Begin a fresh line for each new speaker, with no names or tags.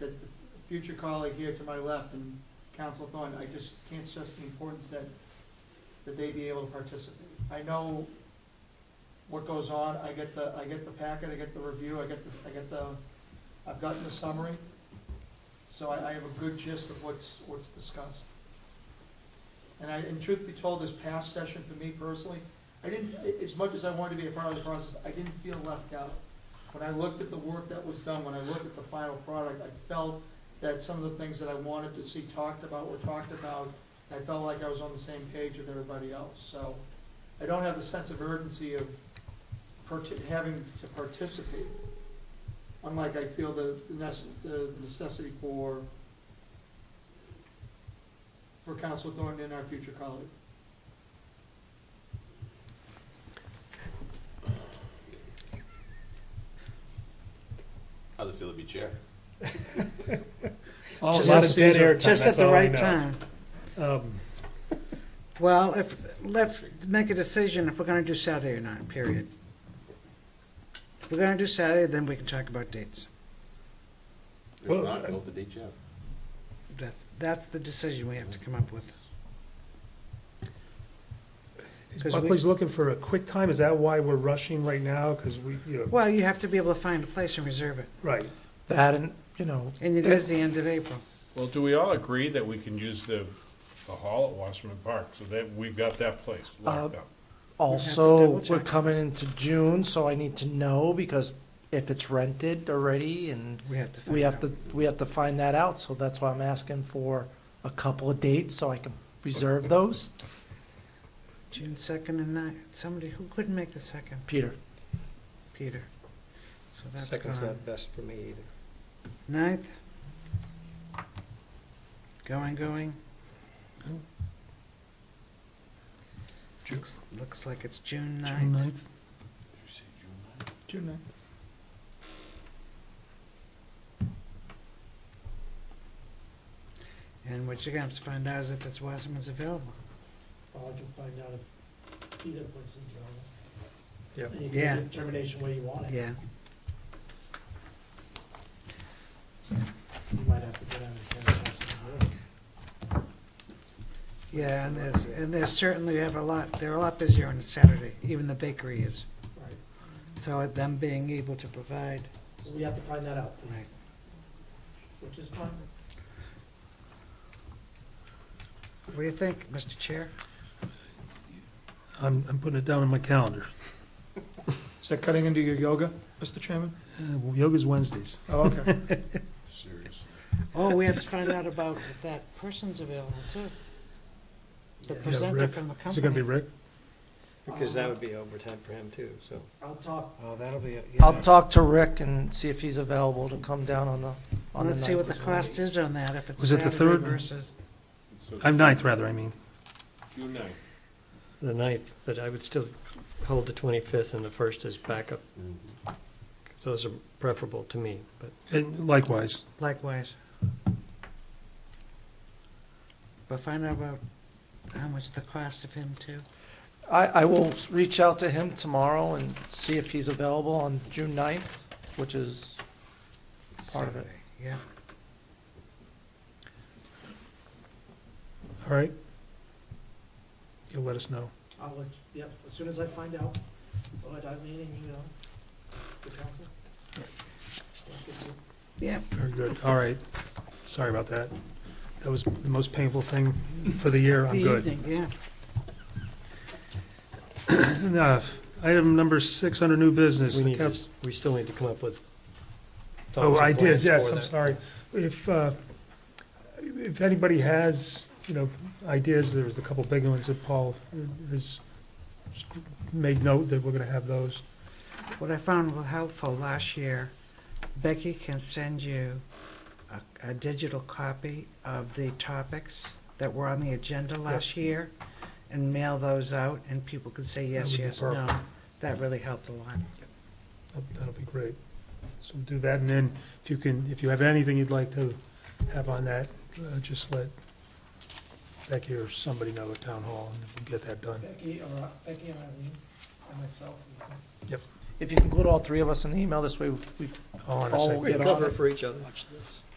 the future colleague here to my left and Council Thorne, I just can't stress the importance that, that they be able to participate. I know what goes on, I get the, I get the packet, I get the review, I get the, I get the, I've gotten the summary. So I, I have a good gist of what's, what's discussed. And I, and truth be told, this past session for me personally, I didn't, as much as I wanted to be a part of the process, I didn't feel left out. When I looked at the work that was done, when I looked at the final product, I felt that some of the things that I wanted to see talked about were talked about. I felt like I was on the same page with everybody else, so I don't have the sense of urgency of parti- having to participate. Unlike I feel the the nece- the necessity for, for Council Thornton and our future colleague.
How's it feel to be chair?
All
Just
of
at
us
Oh, a dead
Caesar.
air time,
Just at
that's
the
all I
right
know.
time.
Um,
Well, if, let's make a decision if we're gonna do Saturday or not, period. If we're gonna do Saturday, then we can talk about dates.
If
Well,
not,
I-
go to day chair.
That's, that's the decision we have to come up with.
is
'Cause we-
Buckley's looking for a quick time, is that why we're rushing right now? Because we, you know,
Well, you have to be able to find a place and reserve it,
right,
That and, you know,
and it is the end of April.
Well, do we all agree that we can use the, the hall at Wasserman Park, so that we've got that place locked
Uh,
up?
also,
double check.
we're coming into June, so I need to know because if it's rented already and
We have to find
we have
out.
to, we have to find that out, so that's why I'm asking for a couple of dates so I can reserve those.
June second and nine, somebody, who couldn't make the second?
Peter,
Peter. So that's
Second's
gone.
not best for me either.
Ninth. Going, going. Looks, looks like it's June ninth.
June ninth.
And what you're gonna have to find out is if it's Wasserman's available.
Well, I can find out if either place is available.
Yeah.
And you can
Yeah.
make a determination where you want it.
Yeah,
You might have to get out of town. and have some work.
yeah, and there's, and there's certainly have a lot, they're a lot busier on a Saturday, even the bakery is.
Right.
So them being able to provide,
So we have to find that out,
right,
which is fine.
what do you think, Mr. Chair?
I'm, I'm putting it down on my calendar.
Is that cutting into your yoga, Mr. Chairman?
Uh, Yoga's Wednesdays.
Oh, okay.
Seriously.
Oh, we have to find out about if that person's available too. The presenter
Rick.
from the company.
Is it gonna be Rick?
Because that would be
overtime for him too, so.
Um, I'll talk,
Oh, that'll be, yeah.
I'll talk to Rick and see if he's available to come down on the, on the
Let's see what the
ninth.
cost is on that, if it's
Was it the
Saturday
third?
versus,
So
I'm ninth, rather, I mean.
June ninth.
The ninth, but I would still hold the twenty-fifth and the first as backup, 'cause those are preferable to me, but.
And likewise,
likewise. But find out about how much the cost of him too.
I, I will s- reach out to him tomorrow and see if he's available on June ninth, which is Part of it.
Saturday, Yeah,
all right? You'll let us know.
I'll let, you- yep, as soon as I find out, I'll let Eileen and you know, the council. Let's get to-
yeah,
Very good, all right. Sorry about that. That was the most painful thing for the year,
the
I'm good.
evening, yeah.
Uh, Item number six under new business.
We
the
need
cap-
to, we still need to come up with
Oh,
thoughts
I
and
did,
plans
yes,
for
I'm
that.
sorry. If, uh, if anybody has, you know, ideas, there was a couple big ones that Paul uh, has made note that we're gonna have those.
What I found was helpful last year, Becky can send you a, a digital copy of the topics that were on the agenda last year and mail those out and people can say yes,
would be
yes, no.
perfect.
That really helped a lot.
That'll- That'll be great. So do that, and then if you can, if you have anything you'd like to have on that, uh, just let Becky or somebody know at Town Hall, and we'll get that done.
Becky, or, uh, Becky and Eileen, and myself, we can
If you can include all three of us in the email, this way we
All in a
All
second.
get
We
on
cover
it.
for each other.
watch this.